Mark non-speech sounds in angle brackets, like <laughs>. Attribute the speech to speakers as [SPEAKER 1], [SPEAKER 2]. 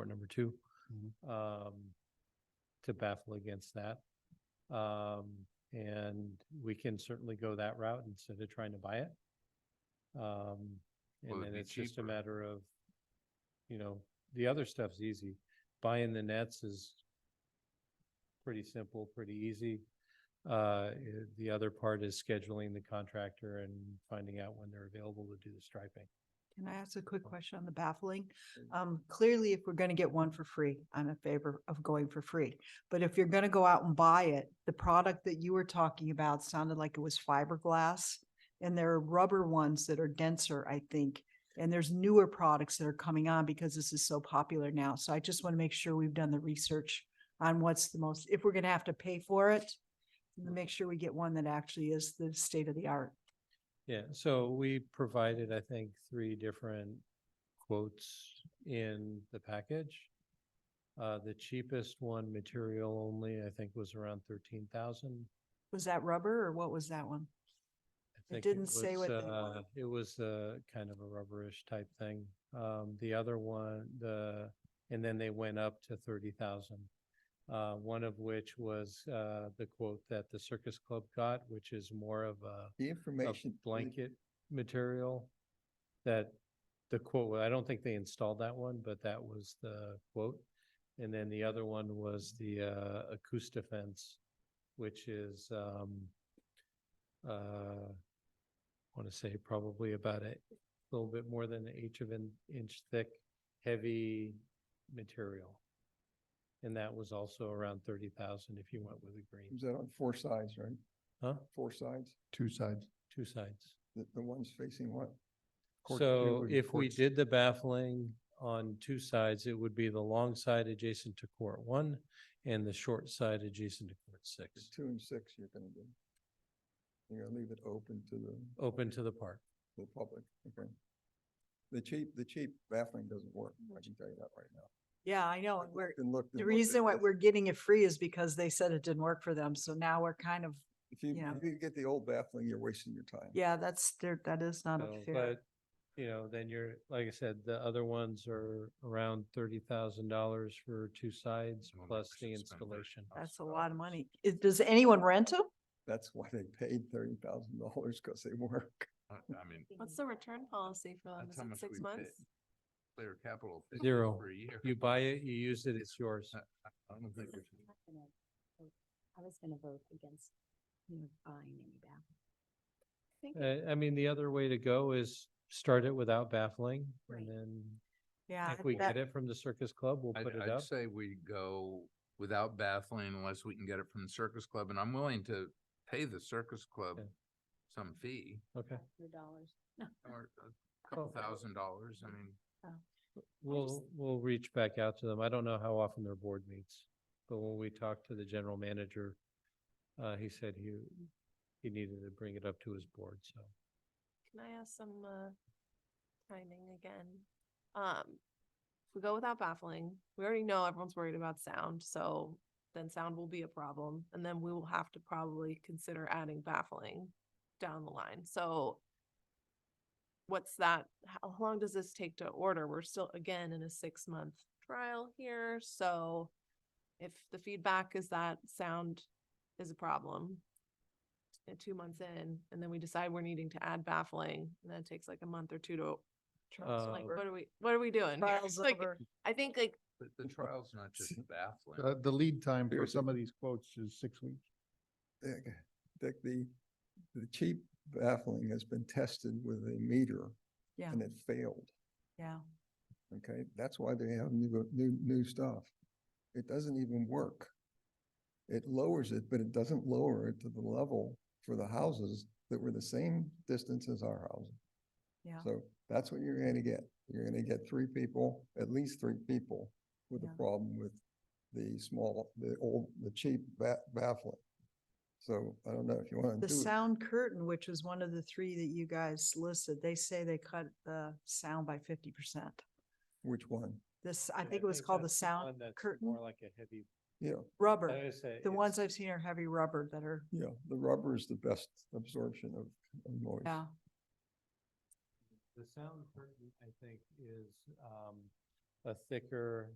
[SPEAKER 1] or number two,
[SPEAKER 2] Mhm.
[SPEAKER 3] Mm-hmm.
[SPEAKER 1] um, to baffle against that. Um, and we can certainly go that route instead of trying to buy it. Um,
[SPEAKER 3] Well,
[SPEAKER 1] and
[SPEAKER 3] it'd
[SPEAKER 1] then
[SPEAKER 3] be
[SPEAKER 1] it's just a
[SPEAKER 3] cheaper.
[SPEAKER 1] matter of, you know, the other stuff's easy. Buying the nets is pretty simple, pretty easy. Uh, i- the other part is scheduling the contractor and finding out when they're available to do the striping.
[SPEAKER 4] Can I ask a quick question on the baffling? Um, clearly, if we're gonna get one for free, I'm in favor of going for free. But if you're gonna go out and buy it, the product that you were talking about sounded like it was fiberglass. And there are rubber ones that are denser, I think. And there's newer products that are coming on because this is so popular now. So I just want to make sure we've done the research on what's the most, if we're gonna have to pay for it, make sure we get one that actually is the state of the art.
[SPEAKER 1] Yeah, so we provided, I think, three different quotes in the package. Uh, the cheapest one, material only, I think was around thirteen thousand.
[SPEAKER 4] Was that rubber or what was that one? It didn't say what they were.
[SPEAKER 1] uh, It was a kind of a rubberish type thing. Um, the other one, the, and then they went up to thirty thousand. Uh, one of which was, uh, the quote that the circus club got, which is more of a
[SPEAKER 2] The
[SPEAKER 1] a
[SPEAKER 2] information.
[SPEAKER 1] blanket material that the quote, I don't think they installed that one, but that was the quote. And then the other one was the uh acoustifence, which is um uh want to say probably about a little bit more than an eighth of an inch thick, heavy material. And that was also around thirty thousand if you went with a green,
[SPEAKER 2] Is that on four sides, right?
[SPEAKER 1] huh?
[SPEAKER 2] Four sides? Two sides.
[SPEAKER 1] Two sides.
[SPEAKER 2] The, the ones facing what? Court
[SPEAKER 1] So
[SPEAKER 2] two and
[SPEAKER 1] if we
[SPEAKER 2] court-
[SPEAKER 1] did the baffling on two sides, it would be the long side adjacent to court one and the short side adjacent to court six,
[SPEAKER 2] Two and six you're gonna do. You're gonna leave it open to the,
[SPEAKER 1] open to the park.
[SPEAKER 2] the public, okay? The cheap, the cheap baffling doesn't work, I can tell you that right now.
[SPEAKER 4] Yeah, I know. Oh,
[SPEAKER 2] I've
[SPEAKER 4] and We're,
[SPEAKER 2] looked and looked and
[SPEAKER 4] The
[SPEAKER 2] looked at
[SPEAKER 4] reason why
[SPEAKER 2] this.
[SPEAKER 4] we're getting it free is because they said it didn't work for them. So now we're kind of,
[SPEAKER 2] If you,
[SPEAKER 4] yeah.
[SPEAKER 2] if you get the old baffling, you're wasting your time.
[SPEAKER 4] yeah, that's, there, that is not a
[SPEAKER 1] So,
[SPEAKER 4] fair.
[SPEAKER 1] But, you know, then you're, like I said, the other ones are around thirty thousand dollars for two sides
[SPEAKER 3] Someone
[SPEAKER 1] plus the
[SPEAKER 3] should spend thirty
[SPEAKER 1] installation.
[SPEAKER 3] thousand
[SPEAKER 4] That's a
[SPEAKER 3] dollars.
[SPEAKER 4] lot of money. Is- Does anyone rent them?
[SPEAKER 2] That's why they paid thirty thousand dollars, because they work.
[SPEAKER 3] I I mean,
[SPEAKER 5] What's the return policy for them?
[SPEAKER 3] that's
[SPEAKER 5] Is
[SPEAKER 3] how
[SPEAKER 5] it
[SPEAKER 3] much we
[SPEAKER 5] six
[SPEAKER 3] pay.
[SPEAKER 5] months?
[SPEAKER 3] Clear capital. fifty
[SPEAKER 1] Zero.
[SPEAKER 3] For a year.
[SPEAKER 1] You buy it, you use it, it's yours.
[SPEAKER 3] I I don't think we should-
[SPEAKER 6] I was gonna vote against, you know, buying any back.
[SPEAKER 1] Uh, I mean, the other way to go is start it without baffling
[SPEAKER 6] Right.
[SPEAKER 1] and then
[SPEAKER 4] Yeah.
[SPEAKER 1] if we
[SPEAKER 4] that-
[SPEAKER 1] get it from the circus club, we'll put
[SPEAKER 3] I'd,
[SPEAKER 1] it
[SPEAKER 3] I'd
[SPEAKER 1] up.
[SPEAKER 3] say we go without baffling unless we can get it from the circus club, and I'm willing to pay the circus club
[SPEAKER 1] Okay.
[SPEAKER 3] some fee,
[SPEAKER 1] Okay,
[SPEAKER 6] Hundred dollars.
[SPEAKER 3] or a couple
[SPEAKER 1] Oh.
[SPEAKER 3] thousand dollars, I mean.
[SPEAKER 1] we'll, we'll reach back out to them. I don't know how often their board meets. But when we talked to the general manager, uh, he said he, he needed to bring it up to his board, so.
[SPEAKER 5] Can I ask some, uh, timing again? Um, if we go without baffling, we already know everyone's worried about sound, so then sound will be a problem. And then we will have to probably consider adding baffling down the line. So what's that? How long does this take to order? We're still, again, in a six month trial here, so if the feedback is that sound is a problem, at two months in, and then we decide we're needing to add baffling, and then it takes like a month or two to,
[SPEAKER 1] Uh,
[SPEAKER 5] like, what are we, what are we doing?
[SPEAKER 4] <laughs>
[SPEAKER 5] here?
[SPEAKER 4] Trials
[SPEAKER 5] Like,
[SPEAKER 4] over.
[SPEAKER 5] I think like,
[SPEAKER 3] But
[SPEAKER 1] <laughs>
[SPEAKER 3] the trial's not just baffling.
[SPEAKER 7] Uh, the lead time for
[SPEAKER 2] Seriously.
[SPEAKER 7] some of these quotes is six weeks.
[SPEAKER 2] Dick, Dick, the, the cheap baffling has been tested with a meter
[SPEAKER 4] Yeah,
[SPEAKER 2] and it failed,
[SPEAKER 4] yeah.
[SPEAKER 2] okay? That's why they have new, new, new stuff. It doesn't even work. It lowers it, but it doesn't lower it to the level for the houses that were the same distance as our houses.
[SPEAKER 4] Yeah.
[SPEAKER 2] So that's what you're gonna get. You're gonna get three people, at least three people with a
[SPEAKER 4] Yeah.
[SPEAKER 2] problem with the small, the old, the cheap ba- baffling. So I don't know if you wanna do
[SPEAKER 4] The
[SPEAKER 2] it.
[SPEAKER 4] sound curtain, which was one of the three that you guys listed, they say they cut the sound by fifty percent.
[SPEAKER 2] Which one?
[SPEAKER 4] This, I think it was called the sound curtain,
[SPEAKER 1] More like a heavy.
[SPEAKER 2] Yeah,
[SPEAKER 4] rubber.
[SPEAKER 1] Uh,
[SPEAKER 4] The ones I've seen are heavy rubber that are,
[SPEAKER 2] yeah, the rubber is the best absorption of, of noise.
[SPEAKER 4] yeah.
[SPEAKER 1] The sound curtain, I think, is um, a thicker